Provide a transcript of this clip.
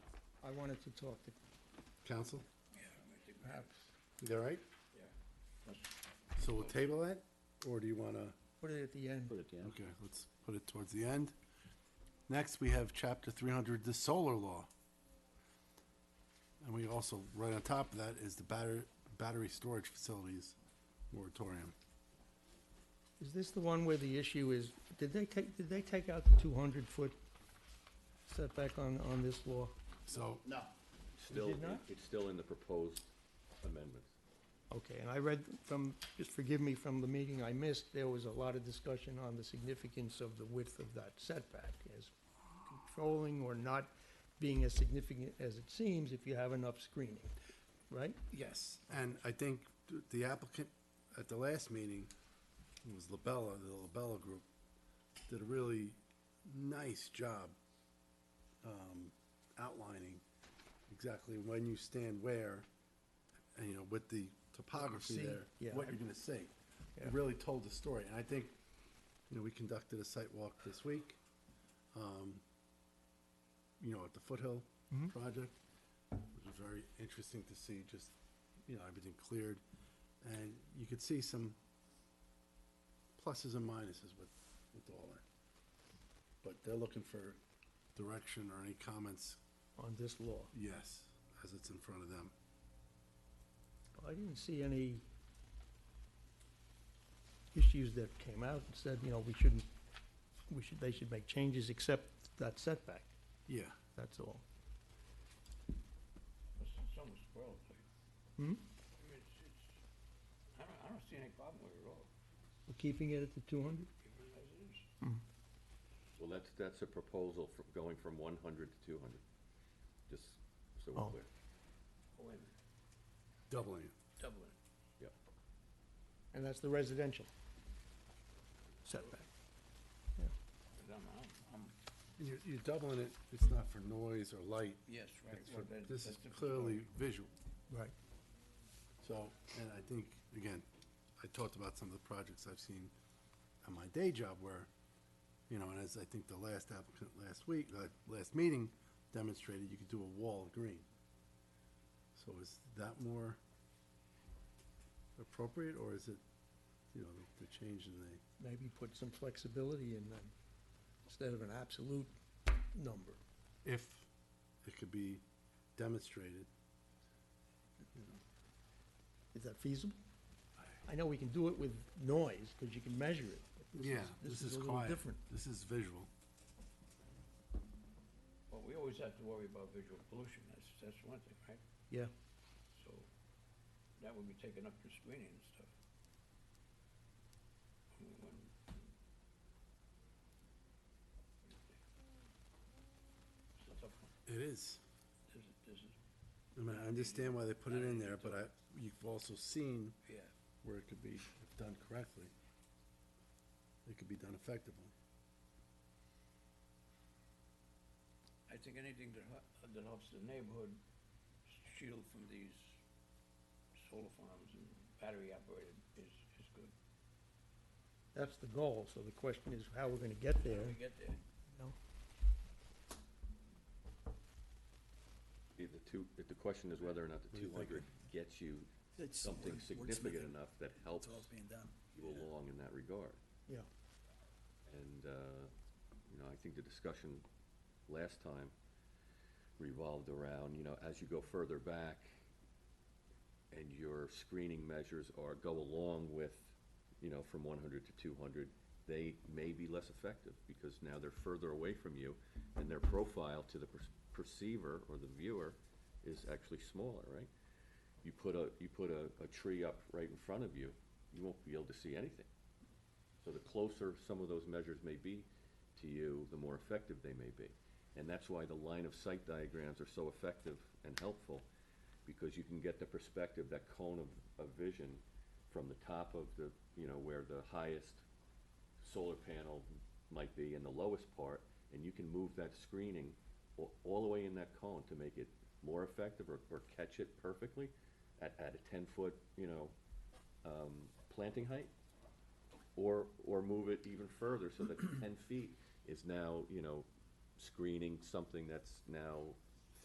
I wanted to talk to, Counsel, perhaps, you all right? Yeah. So we'll table that, or do you wanna, put it at the end. Put it, yeah. okay, let's put it towards the end. Next, we have chapter three hundred, the solar law. And we also, right on top of that is the batter, battery storage facilities moratorium. Is this the one where the issue is, did they take, did they take out the two hundred foot setback on, on this law? So, No. Still, did not? it's still in the proposed amendments. Okay, and I read from, just forgive me from the meeting I missed, there was a lot of discussion on the significance of the width of that setback as controlling or not being as significant as it seems if you have enough screening, right? Yes, and I think th- the applicant at the last meeting, it was Labella, the Labella Group, did a really nice job um, outlining exactly when you stand where, and, you know, with the topography See, there, yeah. what you're gonna see. Yeah. It really told the story, and I think, you know, we conducted a site walk this week, um, you know, at the Foothill Mm-hmm. Project. It was very interesting to see just, you know, everything cleared. And you could see some pluses and minuses with, with all that. But they're looking for direction or any comments, On this law. yes, as it's in front of them. I didn't see any issues that came out and said, you know, we shouldn't, we should, they should make changes except that setback, Yeah, that's all. It's almost spoiled, like, Hmm? I mean, it's, it's, I don't, I don't see any problem with it at all, We're keeping it at the two hundred? even as it is. Well, that's, that's a proposal for going from one hundred to two hundred, just so Oh. we're clear. Oh, wait a minute, doubling it. doubling it. Yep. And that's the residential setback. But I'm, I'm, I'm- And you're, you're doubling it, it's not for noise or light. yes, right. It's well, for, that- this is that's different clearly story. visual. Right. So, and I think, again, I talked about some of the projects I've seen on my day job where, you know, and as I think the last applicant last week, uh, last meeting demonstrated, you could do a wall of green. So is that more appropriate, or is it, you know, the, the change in the, Maybe put some flexibility in them, instead of an absolute number. if it could be demonstrated? Is that feasible? I know we can do it with noise, because you can measure it. but This is a little different. This is visual. Well, we always have to worry about visual pollution, that's, that's one thing, right? Yeah. So, that would be taken up through screening and stuff. I mean, when- It's a tough one. It is. uh, This is, this is, I mean, I understand why they put it in there, but I, you've also seen yeah. where it could be, if done correctly, it could be done effectively. I think anything that hel- that helps the neighborhood shield from these solar farms and battery operated is, is good. That's the goal, so the question is how we're gonna get How there. do we get there? No. If The two, if the question is whether or not the do you two think, hundred gets you something significant enough that helps you along in that regard. Yeah, And, uh, you know, I think the discussion last time revolved around, you know, as you go further back and your screening measures are go along with, you know, from one hundred to two hundred, they may be less effective because now they're further away from you and their profile to the per- perceiver or the viewer is actually smaller, right? You put a, you put a, a tree up right in front of you, you won't be able to see anything. So the closer some of those measures may be to you, the more effective they may be. And that's why the line of sight diagrams are so effective and helpful, because you can get the perspective, that cone of, of vision from the top of the, you know, where the highest solar panel might be in the lowest part, and you can move that screening all, all the way in that cone to make it more effective or, or catch it perfectly at, at a ten-foot, you know, um, planting height or, or move it even further so that ten feet is now, you know, screening something that's now